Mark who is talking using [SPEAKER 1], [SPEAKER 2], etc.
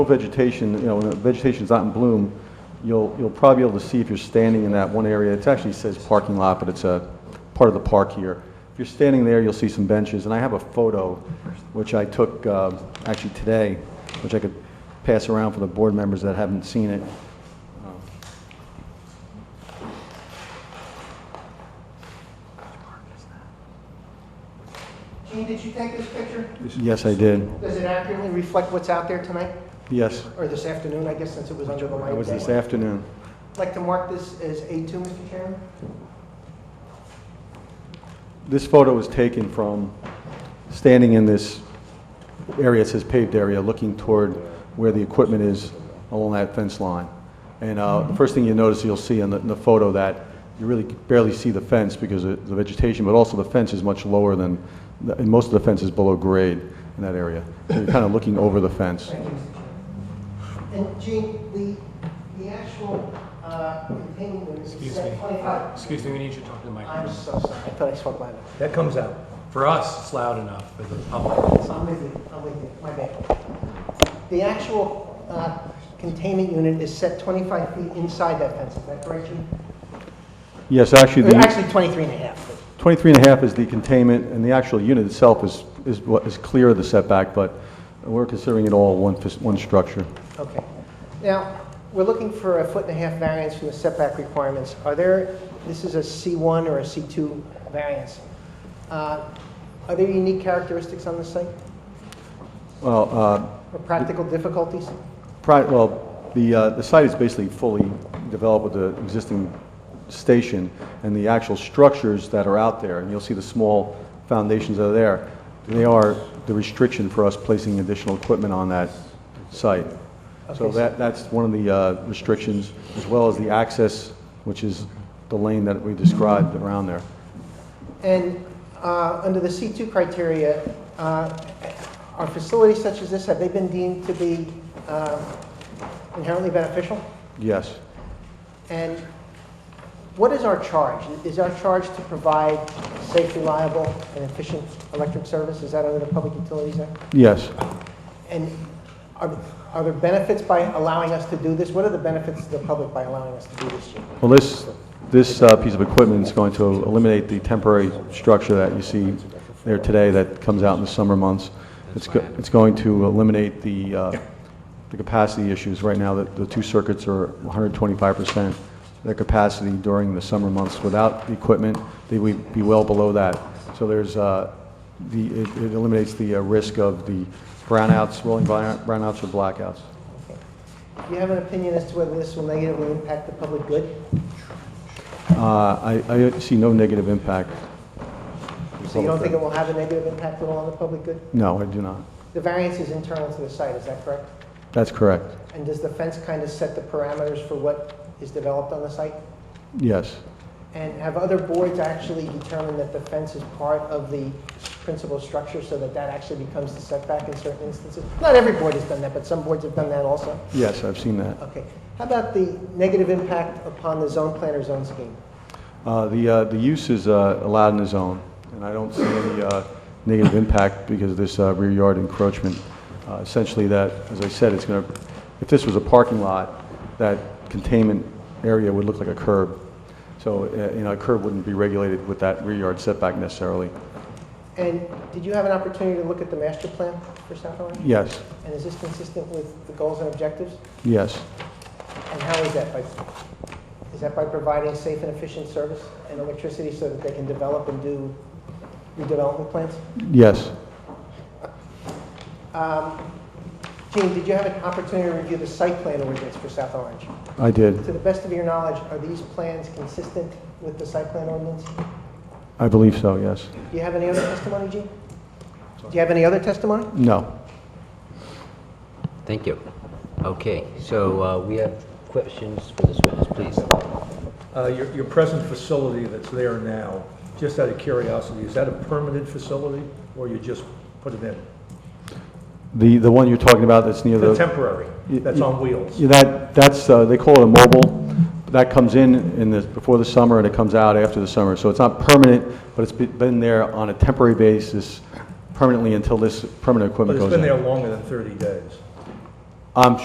[SPEAKER 1] vegetation, you know, when the vegetation's not in bloom, you'll, you'll probably be able to see if you're standing in that one area. It actually says parking lot, but it's a part of the park here. If you're standing there, you'll see some benches, and I have a photo, which I took uh, actually today, which I could pass around for the board members that haven't seen it.
[SPEAKER 2] Gene, did you take this picture?
[SPEAKER 1] Yes, I did.
[SPEAKER 2] Does it accurately reflect what's out there tonight?
[SPEAKER 1] Yes,
[SPEAKER 2] Or this afternoon, I guess, since it was under the light?
[SPEAKER 1] that was this afternoon.
[SPEAKER 2] I'd like to mark this as A2, Mr. Chairman?
[SPEAKER 1] This photo was taken from standing in this area, it says paved area, looking toward where the equipment is along that fence line. And uh, the first thing you notice, you'll see in the, in the photo that you really barely see the fence because of the vegetation, but also the fence is much lower than, the- and most of the fence is below grade in that area. So you're kind of looking over the fence.
[SPEAKER 2] Thank you, Mr. Chairman. And Gene, the, the actual uh, containment is
[SPEAKER 3] Excuse
[SPEAKER 2] set
[SPEAKER 3] me.
[SPEAKER 2] 25.
[SPEAKER 3] Excuse me, we need you to talk to the
[SPEAKER 2] I'm
[SPEAKER 3] microphone.
[SPEAKER 2] so sorry, I thought I spoke loud.
[SPEAKER 4] That comes out.
[SPEAKER 3] For us, it's loud enough, for the public, it's
[SPEAKER 2] I'm
[SPEAKER 3] not.
[SPEAKER 2] with you, I'm with you, my bad. The actual uh, containment unit is set 25 feet inside that fence, is that correct, Gene?
[SPEAKER 1] Yes, actually,
[SPEAKER 2] Or
[SPEAKER 1] the
[SPEAKER 2] Actually, 23 and a half. but-
[SPEAKER 1] 23 and a half is the containment, and the actual unit itself is, is what is clear of the setback, but we're considering it all one, fis- one structure.
[SPEAKER 2] Okay. Now, we're looking for a foot and a half variance from the setback requirements. Are there, this is a C1 or a C2 variance. Uh, Are there unique characteristics on the site
[SPEAKER 1] Well, uh,
[SPEAKER 2] or practical difficulties?
[SPEAKER 1] Pri- Well, the, uh, the site is basically fully developed with the existing station and the actual structures that are out there, and you'll see the small foundations that are there. They are the restriction for us placing additional equipment on that site. So
[SPEAKER 2] Okay, so-
[SPEAKER 1] that, that's one of the uh, restrictions, as well as the access, which is the lane that we described around there.
[SPEAKER 2] And uh, under the C2 criteria, uh, are facilities such as this, have they been deemed to be uh, inherently beneficial?
[SPEAKER 1] Yes.
[SPEAKER 2] And what is our charge? Is our charge to provide safe, reliable, and efficient electric service? Is that under the Public Utilities Act?
[SPEAKER 1] Yes.
[SPEAKER 2] And are are there benefits by allowing us to do this? What are the benefits to the public by allowing us to do this, Jim?
[SPEAKER 1] Well, this, this uh, piece of equipment is going to eliminate the temporary structure that you see there today that comes out in the summer months. It's, go- it's going to eliminate the, uh, the capacity issues. Right now, the, the two circuits are 125% their capacity during the summer months. Without the equipment, they would be well below that. So there's, uh, the, it it eliminates the uh, risk of the brownouts, rolling brownout- brownouts or blackouts.
[SPEAKER 2] Do you have an opinion as to whether this will negatively impact the public good?
[SPEAKER 1] Uh, I, I see no negative impact.
[SPEAKER 2] So you don't think it will have a negative impact at all on the public good?
[SPEAKER 1] No, I do not.
[SPEAKER 2] The variance is internal to the site, is that correct?
[SPEAKER 1] That's correct.
[SPEAKER 2] And does the fence kind of set the parameters for what is developed on the site?
[SPEAKER 1] Yes.
[SPEAKER 2] And have other boards actually determined that the fence is part of the principal structure so that that actually becomes the setback in certain instances? Not every board has done that, but some boards have done that also.
[SPEAKER 1] Yes, I've seen that.
[SPEAKER 2] Okay. How about the negative impact upon the zone plan or zone scheme?
[SPEAKER 1] Uh, The, uh, the use is uh, allowed in the zone, and I don't see any uh, negative impact because of this uh, rear yard encroachment. Uh, Essentially that, as I said, it's going to, if this was a parking lot, that containment area would look like a curb. So, uh, you know, a curb wouldn't be regulated with that rear yard setback necessarily.
[SPEAKER 2] And did you have an opportunity to look at the master plan for South Orange?
[SPEAKER 1] Yes,
[SPEAKER 2] And is this consistent with the goals and objectives?
[SPEAKER 1] yes,
[SPEAKER 2] And how is that? By, is that by providing safe and efficient service and electricity so that they can develop and do redevelopment plans?
[SPEAKER 1] yes.
[SPEAKER 2] Um, Gene, did you have an opportunity to review the site plan ordinance for South Orange?
[SPEAKER 1] I did.
[SPEAKER 2] To the best of your knowledge, are these plans consistent with the site plan ordinance? Do
[SPEAKER 1] I believe so, yes.
[SPEAKER 2] you have any other testimony, Gene? Do you have any other testimony?
[SPEAKER 1] No.
[SPEAKER 5] Thank you. Okay, so uh, we have questions for this witness, please.
[SPEAKER 4] Uh, Your your present facility that's there now, just out of curiosity, is that a permanent facility or you just put it in?
[SPEAKER 1] The, the one you're talking about that's near
[SPEAKER 4] The
[SPEAKER 1] the...
[SPEAKER 4] temporary, that's on wheels.
[SPEAKER 1] Yeah, that, that's, uh, they call it a mobile. That comes in in the, before the summer and it comes out after the summer. So it's not permanent, but it's be- been there on a temporary basis permanently until this permanent
[SPEAKER 4] But
[SPEAKER 1] equipment
[SPEAKER 4] it's
[SPEAKER 1] goes Um,
[SPEAKER 4] been there
[SPEAKER 1] in.
[SPEAKER 4] longer than 30 days.
[SPEAKER 1] I'm